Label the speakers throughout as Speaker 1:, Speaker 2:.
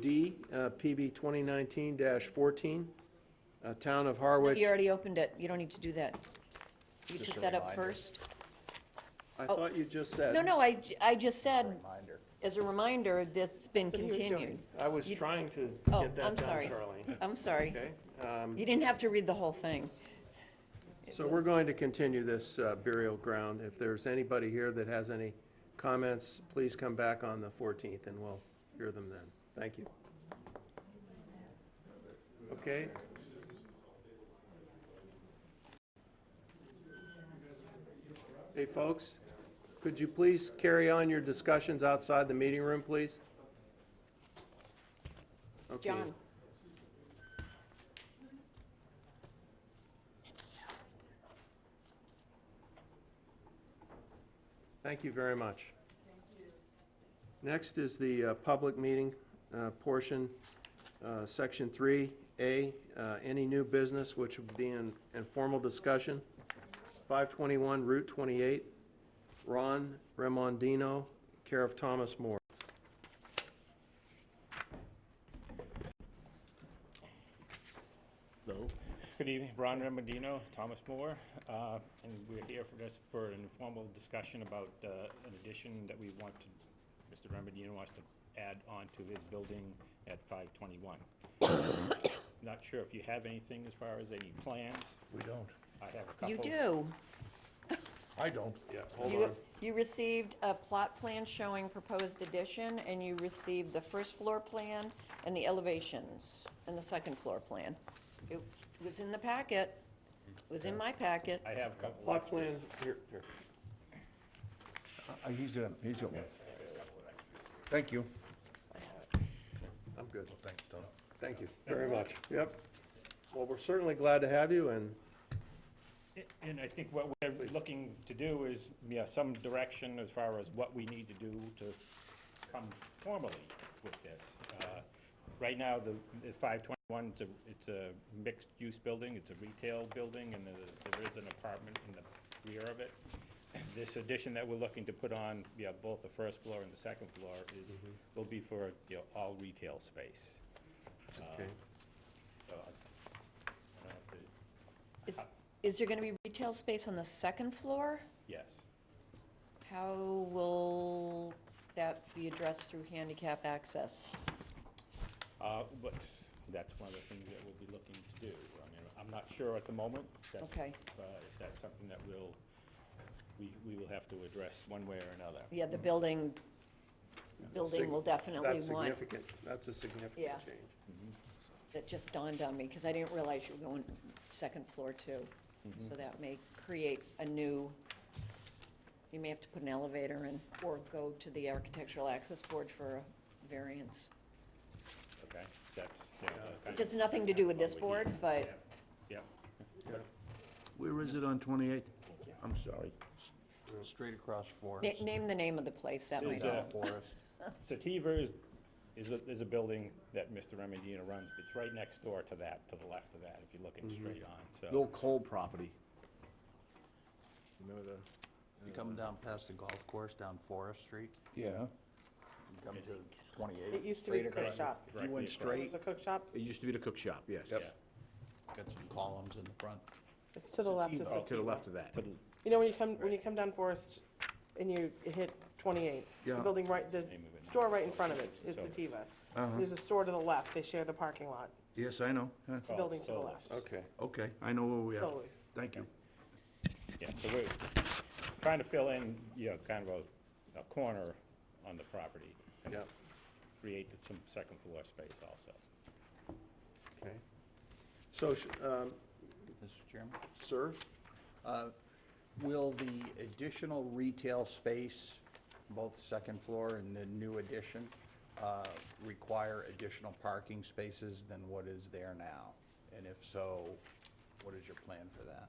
Speaker 1: B, uh, PB 2019-14, uh, Town of Harwich.
Speaker 2: You already opened it, you don't need to do that. You
Speaker 3: Just
Speaker 2: took
Speaker 3: a
Speaker 2: that up
Speaker 3: reminder.
Speaker 2: first.
Speaker 1: I thought you just said.
Speaker 2: oh. No, no, I, j- I just said,
Speaker 3: Reminder.
Speaker 2: as a reminder, that's been
Speaker 1: That's what he was doing.
Speaker 2: continued.
Speaker 1: I was
Speaker 2: You-
Speaker 1: trying to
Speaker 2: Oh,
Speaker 1: get that
Speaker 2: I'm
Speaker 1: done,
Speaker 2: sorry.
Speaker 1: Charlene.
Speaker 2: I'm sorry.
Speaker 1: Okay, um,
Speaker 2: You didn't have to read the whole thing.
Speaker 1: so we're going to continue this uh, burial ground. If there's anybody here that has any comments, please come back on the 14th, and we'll hear them then. Thank you. Okay? Hey, folks, could you please carry on your discussions outside the meeting room, please? Okay.
Speaker 2: John?
Speaker 1: Thank you very much. Next is the uh, public meeting uh, portion, uh, Section 3A, uh, any new business which would be in informal discussion. 521 Route 28, Ron Remondino, care of Thomas Moore.
Speaker 4: Good evening, Ron Remendino, Thomas Moore, uh, and we're here for this, for an informal discussion about uh, an addition that we want to, Mr. Remendino wants to add on to his building at 521. Not sure if you have anything as far as any plans.
Speaker 3: We don't.
Speaker 4: I have a couple.
Speaker 2: You do.
Speaker 3: I don't.
Speaker 1: Yeah, hold
Speaker 2: You-
Speaker 1: on.
Speaker 2: You received a plot plan showing proposed addition, and you received the first floor plan and the elevations, and the second floor plan. It was in the packet, It was in my packet.
Speaker 4: I have a couple.
Speaker 1: Plot plan, here, here.
Speaker 3: Uh, He's done, he's got one. Thank you.
Speaker 1: I'm good.
Speaker 3: Thanks, Tom.
Speaker 1: Thank you very much. Yep. Well, we're certainly glad to have you, and
Speaker 4: And I think what we're looking to do is, yeah, some direction as far as what we need to do to come formally with this. Uh, Right now, the the 521, it's a, it's a mixed-use building, it's a retail building, and there's, there is an apartment in the rear of it. This addition that we're looking to put on, yeah, both the first floor and the second floor is, will be for, you know, all retail space.
Speaker 1: okay.
Speaker 4: So I I don't have to,
Speaker 2: Is, is there gonna be retail space on the second floor?
Speaker 4: yes.
Speaker 2: How will that be addressed through handicap access?
Speaker 4: Uh, But that's one of the things that we'll be looking to do. I mean, I'm not sure at the moment. That's-
Speaker 2: Okay.
Speaker 4: uh, If that's something that we'll, we, we will have to address one way or another.
Speaker 2: Yeah, the building, building will definitely
Speaker 1: That's
Speaker 2: want,
Speaker 1: significant. That's a significant
Speaker 2: Yeah.
Speaker 1: change.
Speaker 2: that just dawned on me, because I didn't realize you were going second floor too.
Speaker 1: Mm-hmm.
Speaker 2: So that may create a new, you may have to put an elevator in, or go to the architectural access board for a variance.
Speaker 4: Okay? That's, you know, kind
Speaker 2: Just
Speaker 4: of-
Speaker 2: nothing to do with this board, but
Speaker 4: yeah.
Speaker 5: Where is it on 28? I'm sorry.
Speaker 3: Straight across
Speaker 2: na-
Speaker 3: Forest.
Speaker 2: name the name of the place, that might
Speaker 4: There's
Speaker 2: help.
Speaker 4: a-
Speaker 3: Forest.
Speaker 4: Sativa is, is a, is a building that Mr. Remendino runs, but it's right next door to that, to the left of that, if you're looking straight on, so.
Speaker 6: The old coal property.
Speaker 3: Remember the?
Speaker 6: You coming
Speaker 4: uh,
Speaker 6: down past the golf course, down Forest Street,
Speaker 5: Yeah.
Speaker 6: you come to
Speaker 7: It
Speaker 6: 28.
Speaker 7: used to be the cook
Speaker 4: Right-
Speaker 7: shop.
Speaker 4: right across.
Speaker 6: You went
Speaker 7: It was
Speaker 6: straight,
Speaker 7: the cook shop.
Speaker 6: it used to be the cook shop, yes.
Speaker 4: Yep.
Speaker 6: Got some columns in the front.
Speaker 7: It's to the left. of
Speaker 6: Oh, To the left of that.
Speaker 4: To the-
Speaker 7: You know, when you come, when you come down Forest and you hit 28, the
Speaker 5: Yeah.
Speaker 7: building right, the
Speaker 4: Name of it.
Speaker 7: store right in front of it is
Speaker 4: So-
Speaker 7: Sativa. There's a store to the left. They share the parking lot.
Speaker 5: Yes, I know. Huh.
Speaker 7: It's a building to the
Speaker 4: Solus.
Speaker 7: Oh, left.
Speaker 1: Okay.
Speaker 5: Okay, I know where we are.
Speaker 7: Solus.
Speaker 5: Thank you.
Speaker 4: Yeah, so we're trying to fill in, you know, kind of a, a corner on the property,
Speaker 1: Yeah,
Speaker 4: create some second floor space also.
Speaker 1: okay. So, sh- um,
Speaker 6: Mr. Chairman?
Speaker 1: sir,
Speaker 6: Will the additional retail space, both second floor and the new addition, uh, require additional parking spaces than what is there now? And if so, what is your plan for that?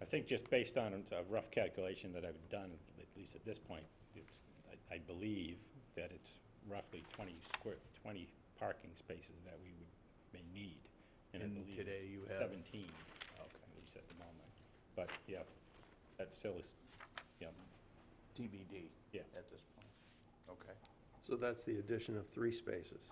Speaker 4: I think just based on a rough calculation that I've done, at least at this point, it's, I, I believe that it's roughly twenty square, twenty parking spaces that we would, may need. I
Speaker 6: And
Speaker 4: believe
Speaker 6: today
Speaker 4: it's
Speaker 6: you have-
Speaker 4: Seventeen, at least at the moment. But, yeah, that still is, yeah,
Speaker 6: TBD?
Speaker 4: Yeah.
Speaker 6: At this point? Okay.
Speaker 1: so that's the addition of three spaces.